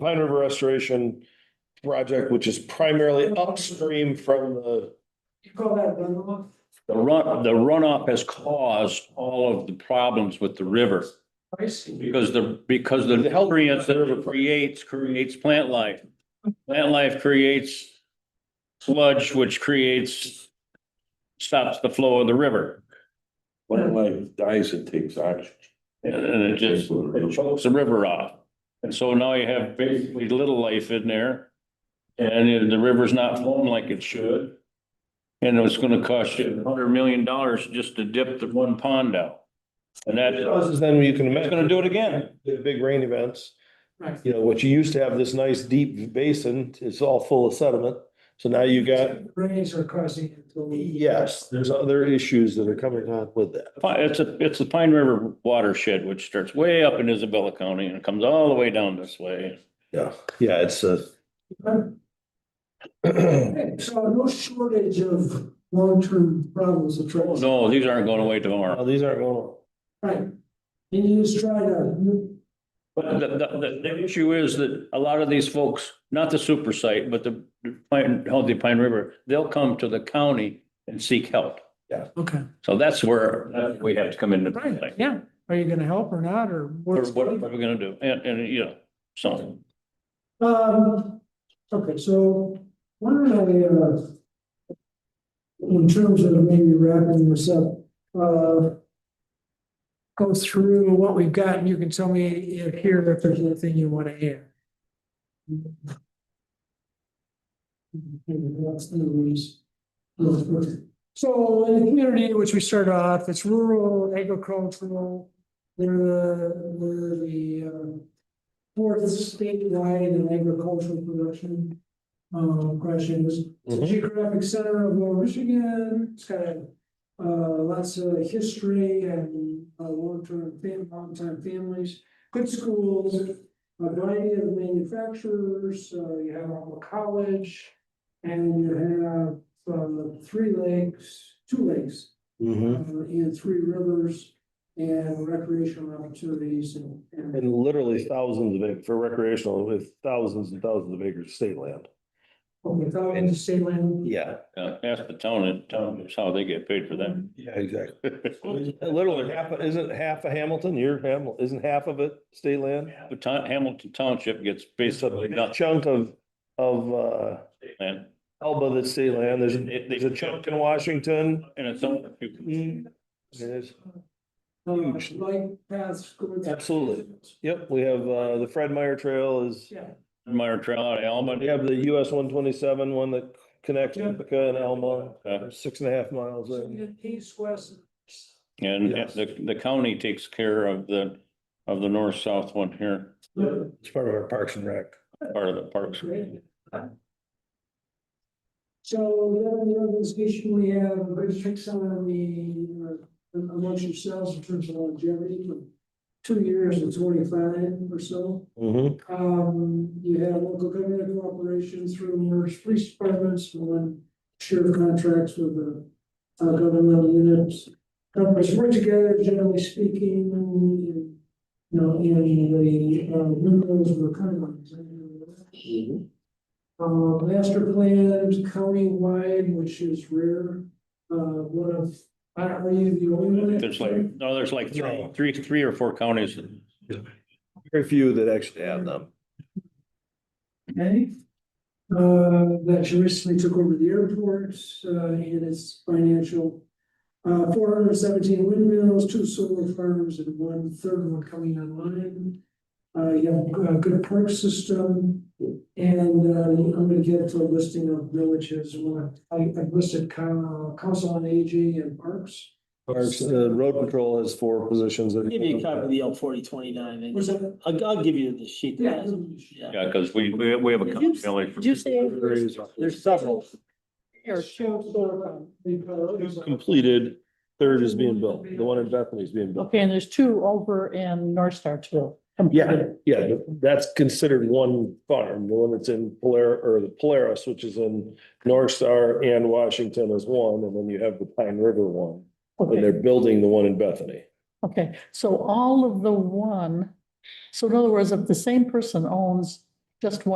Pine River Restoration project, which is primarily upstream from the, You call that runoff? The run, the runoff has caused all of the problems with the river I see. because the, because the nutrients that it creates, creates plant life. Plant life creates sludge, which creates, stops the flow of the river. Plant life dies, it takes oxygen. And and it just, it chokes the river off. And so now you have basically little life in there. And the river's not flowing like it should. And it's gonna cost you a hundred million dollars just to dip the one pond out. And that, causes then you can it's imagine. gonna do it again. The big rain events, Right. you know, what you used to have this nice deep basin, it's all full of sediment. So now you got, Rains are causing it to leak. yes, there's other issues that are coming on with that. Pi- It's a, it's the Pine River watershed, which starts way up in Isabella County and comes all the way down this way. Yeah, yeah, it's uh, a. Okay, So no shortage of long-term problems of Oh, drugs. No, these aren't going away Oh, tomorrow. These aren't going on. Right. And you just try to, But the, the, the, the issue is that a lot of these folks, not the super site, but the Pine, Healthy Pine River, they'll come to the county and seek help. okay, So that's where uh, we have to come into right, play. yeah. Are you gonna help or not, or Or what's? what are we gonna do? And, and, you know, so. Um, okay, so why don't I, uh, in terms of maybe wrapping this up, uh, go through what we've got and you can tell me if here, if there's anything you want to add. So in the community, which we start off, it's rural, agricultural, they're the, we're the, uh, fourth statewide in agricultural production. Um, question is, it's a Mhm. geographic center of Lower Michigan, it's got uh, lots of history and uh, long-term, fam- long-time families, good schools, a variety of manufacturers, uh, you have a college, and you have, um, three lakes, two lakes, uh, Mm-hmm. Mhm. and three rivers, and recreational opportunities and. and- And literally thousands of, ac- for recreational, with thousands and thousands of acres of state land. Okay, so in the state land. Yeah. Uh, ask the town and tell them how they get paid for that. Yeah, exactly. Literally half, isn't half of Hamilton, your Hamilton, isn't half of it state land? The town, Hamilton Township gets It's a basically big nothing. chunk of, of, uh, man. Alba that's state land. There's, It- Mm-hmm. there's a chunk in Washington. And it's on. Mm-hmm. Mm, There's, Uh, Light paths. going- Absolutely. yep, we have, uh, the Fred Meyer Trail is, Yeah, Meyer Trail out of Alma. we have the US one twenty-seven, one that connects Ithaca and Alma. Uh, Six and a half miles. so in. you get east, west. And Yes. the, the county takes care of the, of the north-south one here, and- It's part of our Parks and Rec. part of the parks. Great. So the other organization, we have a good fix on the, uh, amongst yourselves in terms of longevity, from two years and twenty-five or so. Mm-hmm. Um, you have local government cooperation through Merck's police departments, one share contracts with the uh, governmental units. Governments work together, generally speaking, in, you know, in the, uh, windows of the Mm-hmm. county. Uh, master plans countywide, which is rare, uh, one of, are you the only one? There's like, no, there's like three, three, three or four counties. Very few that actually have them. Okay. Uh, that she recently took over the airport, uh, and its financial. Uh, four hundred seventeen windmills, two solar farms, and one third one coming online. Uh, you have a good park system, and, uh, I'm gonna get to a listing of villages, one, I, I listed coun- council on aging and parks. Parks, the road patrol has four positions. that- Give you a copy of the L forty twenty-nine, Was that? I'll, I'll give you the sheet. that has it. Yeah, because we, we we have a county. Did you say Areas. there's several? Or show solar farm. Completed, third is being built. The one in Bethany is being built. Okay, and there's two over in North Starkville. Yeah, yeah, that's considered one farm. The one that's in Polar, or the Polaris, which is in North Star and Washington is one, and then you have the Pine River one. And they're Okay, building the one in Bethany. okay, so all of the one, so in other words, if the same person owns just